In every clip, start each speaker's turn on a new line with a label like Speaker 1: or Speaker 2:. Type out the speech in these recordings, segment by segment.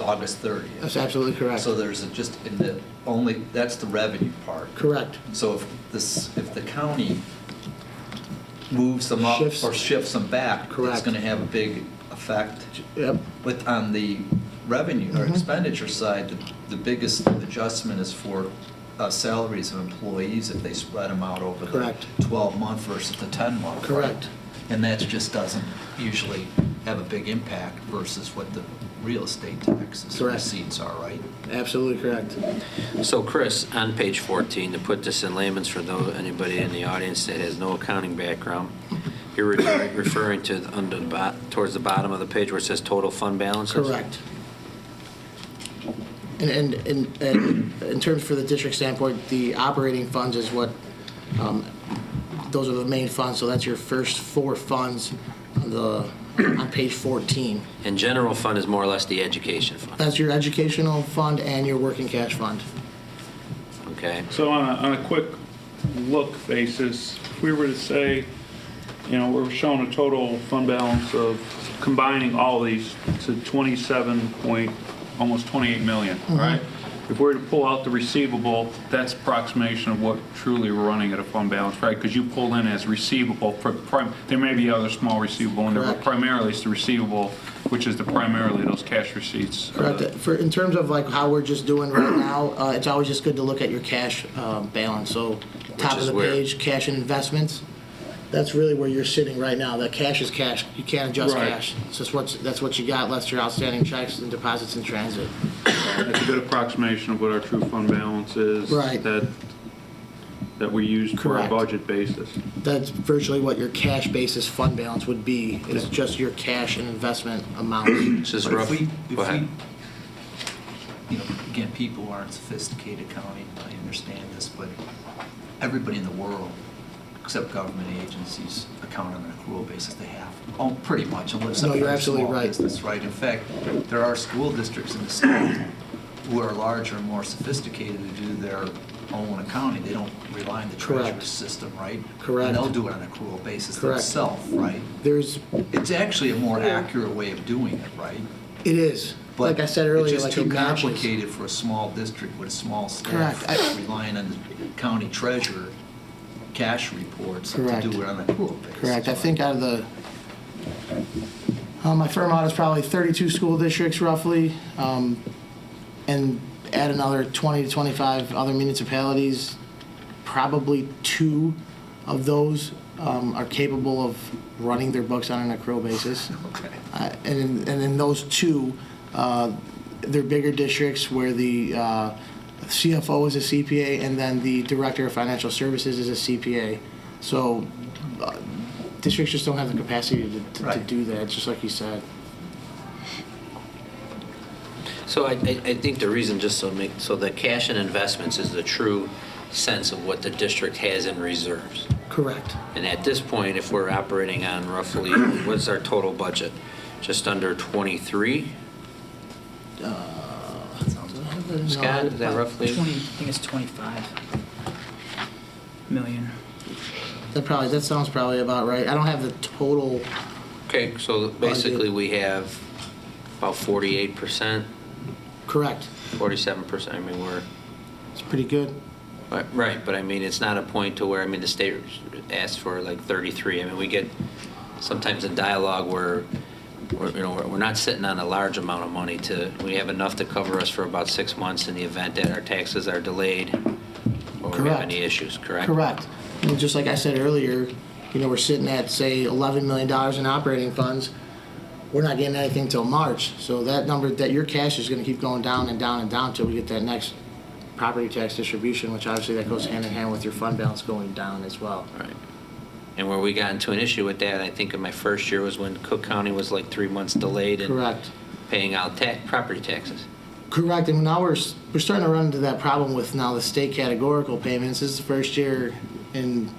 Speaker 1: August 30th.
Speaker 2: That's absolutely correct.
Speaker 1: So there's a just, in the, only, that's the revenue part.
Speaker 2: Correct.
Speaker 1: So if this, if the county moves them up
Speaker 2: Shifts.
Speaker 1: or shifts them back, it's
Speaker 2: Correct.
Speaker 1: going to have a big effect
Speaker 2: Yep,
Speaker 1: with, on the revenue or
Speaker 2: Mhm.
Speaker 1: expenditure side, the, the biggest adjustment is for uh, salaries of employees if they spread them out over the
Speaker 2: Correct.
Speaker 1: 12-month versus the 10-month. right?
Speaker 2: Correct.
Speaker 1: And that just doesn't usually have a big impact versus what the real estate taxes
Speaker 2: Correct.
Speaker 1: receipts are, right?
Speaker 2: absolutely correct.
Speaker 3: So Chris, on page 14, to put this in layman's for those, anybody in the audience that has no accounting background, you're re- referring to the- under the, bo- towards the bottom of the page where it says total fund balances?
Speaker 2: Correct. And, and, and- and in terms for the district standpoint, the operating funds is what, um, those are the main funds, so that's your first four funds on the, on page 14.
Speaker 3: And general fund is more or less the education fund,
Speaker 2: That's your educational fund and your working cash fund.
Speaker 3: okay?
Speaker 4: So on a, on a quick look basis, if we were to say, you know, we're showing a total fund balance of combining all these to 27 point, almost 28 million,
Speaker 2: Mm-hmm.
Speaker 4: all right? If we were to pull out the receivable, that's approximation of what truly we're running at a fund balance, right? Because you pulled in as receivable, pri- prim- there may be other small receivable in there, but
Speaker 2: Correct.
Speaker 4: primarily it's the receivable, which is the primarily those cash receipts. uh, are the-
Speaker 2: Correct. For, in terms of like how we're just doing right now, uh, it's always just good to look at your cash um, balance. So top of
Speaker 3: is
Speaker 2: the
Speaker 3: where?
Speaker 2: page, cash and investments. That's really where you're sitting right now. That cash is cash. You can't adjust
Speaker 4: Right.
Speaker 2: cash. It's just what's, that's what you got, less your outstanding checks and deposits in transit.
Speaker 4: That's a good approximation of what our true fund balance is.
Speaker 2: Right.
Speaker 4: That, that we used for our
Speaker 2: Correct.
Speaker 4: budget basis.
Speaker 2: That's virtually what your cash basis fund balance would be, is just your cash and investment amounts.
Speaker 3: This is
Speaker 1: But if
Speaker 3: rough.
Speaker 1: we, if
Speaker 3: Go ahead.
Speaker 1: we, you know, again, people aren't sophisticated accounting, I understand this, but everybody in the world, except government agencies, account on an accrual basis, they have, oh, pretty much, unless
Speaker 2: No,
Speaker 1: they're
Speaker 2: you're
Speaker 1: a
Speaker 2: absolutely
Speaker 1: small
Speaker 2: right.
Speaker 1: business, right? In fact, there are school districts in the state who are larger and more sophisticated who do their own accounting. They don't rely on the
Speaker 2: Correct.
Speaker 1: treasurer's system, right?
Speaker 2: Correct.
Speaker 1: And they'll do it on an accrual basis
Speaker 2: Correct.
Speaker 1: themselves, right?
Speaker 2: There's,
Speaker 1: It's actually a more accurate way of doing it, right?
Speaker 2: it is,
Speaker 1: But
Speaker 2: like I said earlier,
Speaker 1: It's
Speaker 2: like
Speaker 1: just
Speaker 2: it
Speaker 1: too
Speaker 2: matches.
Speaker 1: complicated for a small district with a small staff
Speaker 2: Correct. I-
Speaker 1: relying on the county treasurer cash reports to
Speaker 2: Correct.
Speaker 1: do it on an accrual basis.
Speaker 2: Correct, I think out of the, uh, my firm audit is probably 32 school districts roughly, um, and add another 20 to 25 other municipalities, probably two of those um, are capable of running their books on an accrual basis.
Speaker 1: Okay.
Speaker 2: Uh, And in, and in those two, uh, they're bigger districts where the uh, CFO is a CPA and then the Director of Financial Services is a CPA. So uh, districts just don't have the capacity to- to, to
Speaker 1: Right.
Speaker 2: do that, just like you said.
Speaker 3: So I, I I think the reason, just so make, so the cash and investments is the true sense of what the district has in reserves.
Speaker 2: Correct.
Speaker 3: And at this point, if we're operating on roughly, what's our total budget? Just under 23? Scott, is that roughly?
Speaker 5: 20, I think it's 25 million.
Speaker 2: That probably, that sounds probably about right. I don't have the total,
Speaker 3: Okay, so basically, we have about 48%,
Speaker 2: correct.
Speaker 3: 47%, I mean, we're,
Speaker 2: It's pretty good.
Speaker 3: but- right, but I mean, it's not a point to where, I mean, the state asks for like 33. I mean, we get, sometimes in dialogue, we're, we're, you know, we're- we're not sitting on a large amount of money to, we have enough to cover us for about six months in the event that our taxes are delayed or we have
Speaker 2: Correct.
Speaker 3: any issues, correct?
Speaker 2: Correct. And just like I said earlier, you know, we're sitting at, say, $11 million in operating funds. We're not getting anything till March. So that number, that your cash is going to keep going down and down and down until we get that next property tax distribution, which obviously that goes hand in hand with your fund balance going down as well.
Speaker 3: Right. And where we got into an issue with that, I think in my first year was when Cook County was like three months delayed in
Speaker 2: Correct.
Speaker 3: paying out ta, property taxes.
Speaker 2: Correct, and now we're, s- we're starting to run into that problem with now the state categorical payments. This is the first year in,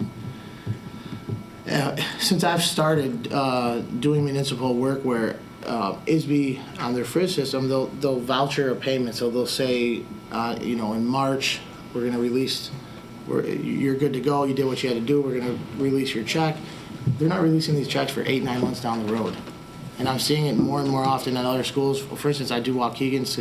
Speaker 2: uh, since I've started uh, doing municipal work where uh, ISB, on their frizz system, they'll, they'll voucher a payment, so they'll say, uh, you know, in March, we're gonna release, we're, you're good to go, you did what you had to do, we're gonna release your check. They're not releasing these checks for eight, nine months down the road. And I'm seeing it more and more often at other schools. For instance, I do Waukegan's